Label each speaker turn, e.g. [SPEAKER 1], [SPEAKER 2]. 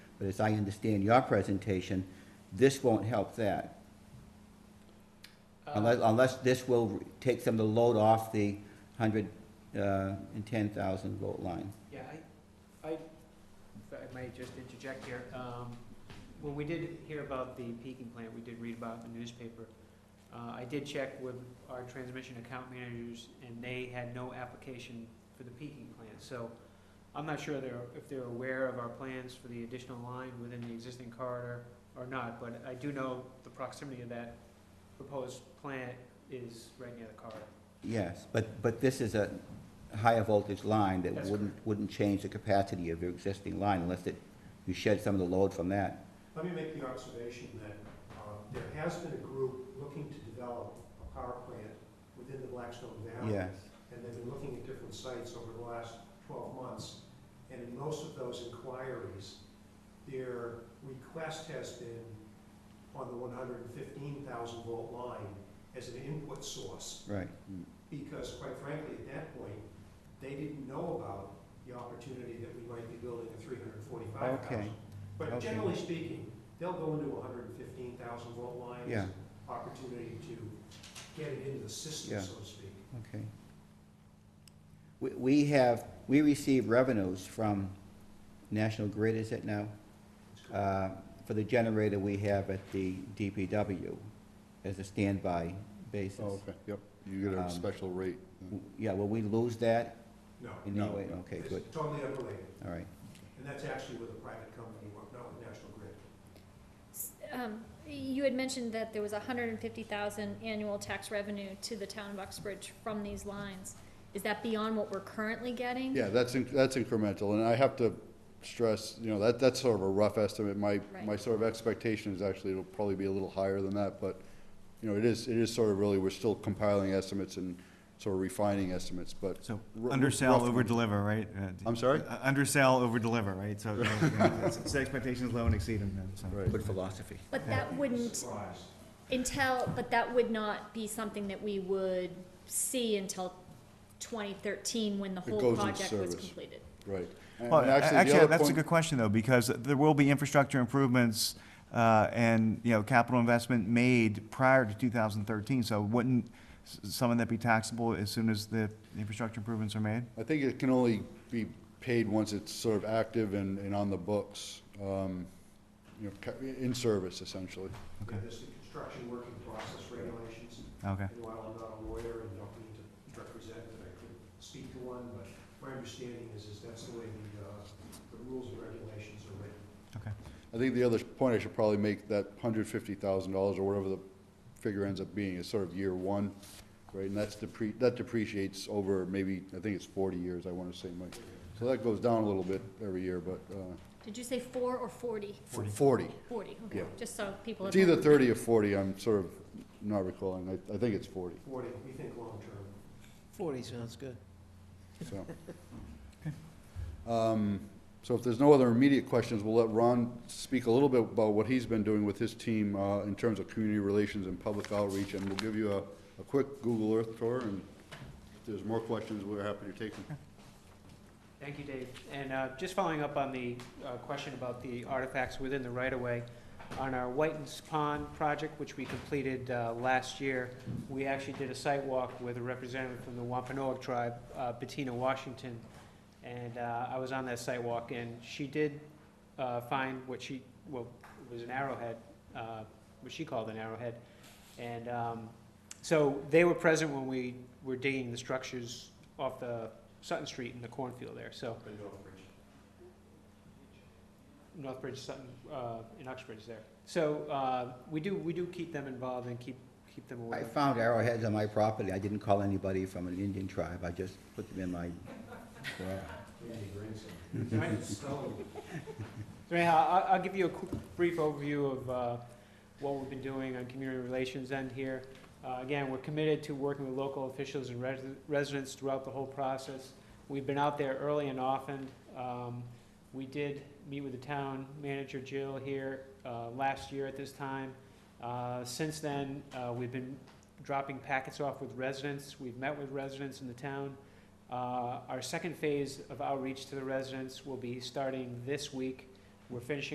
[SPEAKER 1] But as I understand your presentation, this won't help that.
[SPEAKER 2] Uh,
[SPEAKER 1] Unless, unless this will take some of the load off the hundred, uh, and ten thousand vote line.
[SPEAKER 2] Yeah, I, I, if I might just interject here, um, when we did hear about the peaking plant, we did read about it in the newspaper. Uh, I did check with our transmission account managers, and they had no application for the peaking plant, so I'm not sure they're, if they're aware of our plans for the additional line within the existing corridor or not, but I do know the proximity of that proposed plant is right near the corridor.
[SPEAKER 1] Yes, but, but this is a higher voltage line that
[SPEAKER 2] That's
[SPEAKER 1] wouldn't, wouldn't change the capacity of your existing line unless it, you shed some of the load from that.
[SPEAKER 3] Let me make the observation that uh, there has been a group looking to develop a power plant within the Blackstone Valley.
[SPEAKER 1] Yes,
[SPEAKER 3] And they've been looking at different sites over the last 12 months. And in most of those inquiries, their request has been on the 115,000 volt line as an input source.
[SPEAKER 1] right.
[SPEAKER 3] Because quite frankly, at that point, they didn't know about the opportunity that we might be building a 345,000.
[SPEAKER 1] Okay,
[SPEAKER 3] But
[SPEAKER 1] Okay.
[SPEAKER 3] generally speaking, they'll go into a hundred and fifteen thousand volt line. as
[SPEAKER 1] Yeah.
[SPEAKER 3] an Opportunity to get it into the system,
[SPEAKER 1] Yeah.
[SPEAKER 3] so to speak.
[SPEAKER 1] okay. We, we have, we receive revenues from National Grid, is it now?
[SPEAKER 3] It's correct.
[SPEAKER 1] uh, for the generator we have at the DPW as a standby
[SPEAKER 4] Oh,
[SPEAKER 1] basis.
[SPEAKER 4] okay, yep. You get
[SPEAKER 1] Um,
[SPEAKER 4] a special rate.
[SPEAKER 1] Yeah, will we lose that
[SPEAKER 3] No,
[SPEAKER 1] in any
[SPEAKER 4] No.
[SPEAKER 1] way? Okay, good,
[SPEAKER 3] it's totally unrelated,
[SPEAKER 1] all right.
[SPEAKER 3] and that's actually with a private company, not with National Grid.
[SPEAKER 5] S- Um, you had mentioned that there was hundred and fifty thousand annual tax revenue to the town of Uxbridge from these lines. Is that beyond what we're currently getting?
[SPEAKER 4] Yeah, that's, inc- that's incremental, and I have to stress, you know, that, that's sort of a rough estimate. My,
[SPEAKER 5] Right.
[SPEAKER 4] my sort of expectation is actually it'll probably be a little higher than that, but, you know, it is, it is sort of really, we're still compiling estimates and sort of refining estimates, but
[SPEAKER 6] So
[SPEAKER 4] R-
[SPEAKER 6] undersell,
[SPEAKER 4] rough
[SPEAKER 6] over deliver, right? Uh, d-
[SPEAKER 4] I'm sorry?
[SPEAKER 6] uh, Undersell, over deliver, right? So you know, set expectations low and exceed them. then, so.
[SPEAKER 4] Right.
[SPEAKER 1] Good philosophy.
[SPEAKER 5] But that wouldn't
[SPEAKER 3] Surprise.
[SPEAKER 5] until, but that would not be something that we would see until twenty thirteen when the
[SPEAKER 4] It
[SPEAKER 5] whole
[SPEAKER 4] goes in
[SPEAKER 5] project was
[SPEAKER 4] service.
[SPEAKER 5] completed.
[SPEAKER 4] right. And-
[SPEAKER 6] Well,
[SPEAKER 4] and
[SPEAKER 6] a-
[SPEAKER 4] the
[SPEAKER 6] actually,
[SPEAKER 4] other
[SPEAKER 6] that's a
[SPEAKER 4] point-
[SPEAKER 6] good question though, because there will be infrastructure improvements uh, and, you know, capital investment made prior to 2013. So wouldn't s- some of that be taxable as soon as the infrastructure improvements are made?
[SPEAKER 4] I think it can only be paid once it's sort of active and, and on the books, um, you know, ca- in service essentially.
[SPEAKER 6] Okay.
[SPEAKER 3] There's the construction working process regulations,
[SPEAKER 6] Okay.
[SPEAKER 3] and while I'm not a lawyer and don't need to represent it, I could speak to one, but my understanding is, is that's the way the, uh, the rules and regulations are written.
[SPEAKER 4] I think the other point I should probably make, that hundred fifty thousand dollars or whatever the figure ends up being is sort of year one, right? And that's depre, that depreciates over maybe, I think it's forty years, I wanna say, Mike. So that goes down a little bit every year, but, uh,
[SPEAKER 5] Did you say four or forty?
[SPEAKER 4] forty.
[SPEAKER 5] Forty, okay,
[SPEAKER 4] Yeah.
[SPEAKER 5] just so people.
[SPEAKER 4] It's
[SPEAKER 5] have-
[SPEAKER 4] either thirty or forty, I'm sort of not recalling, I, I think it's forty,
[SPEAKER 3] Forty, we think long-term.
[SPEAKER 7] Forty sounds good.
[SPEAKER 4] so. Um, so if there's no other immediate questions, we'll let Ron speak a little bit about what he's been doing with his team, uh, in terms of community relations and public outreach, and we'll give you a, a quick Google Earth tour, and if there's more questions, we're happy to take them.
[SPEAKER 2] Thank you, Dave. And uh, just following up on the uh, question about the artifacts within the right-of-way, on our Whitens Pond project, which we completed uh, last year, we actually did a site walk with a representative from the Wampanoag tribe, uh, Bettina Washington, and uh, I was on that site walk, and she did uh, find what she, well, it was an arrowhead, uh, what she called an arrowhead. And um, so they were present when we were digging the structures off the Sutton Street in the cornfield there, so.
[SPEAKER 3] But Northbridge.
[SPEAKER 2] Northbridge, Sutton, uh, in Uxbridge there. So, uh, we do, we do keep them involved and keep, keep them aware.
[SPEAKER 1] I found arrowheads on my property. I didn't call anybody from an Indian tribe. I just put them in my garage.
[SPEAKER 3] Andy Grayson.
[SPEAKER 2] Right.
[SPEAKER 3] Spelling.
[SPEAKER 2] So anyhow, I'll, I'll give you a quick, brief overview of, uh, what we've been doing on community relations end here. Uh, again, we're committed to working with local officials and resi- residents throughout the whole process. We've been out there early and often. Um, we did meet with the town manager Jill here, uh, last year at this time. Uh, since then, uh, we've been dropping packets off with residents. We've met with residents in the town. Uh, our second phase of outreach to the residents will be starting this week. We're finishing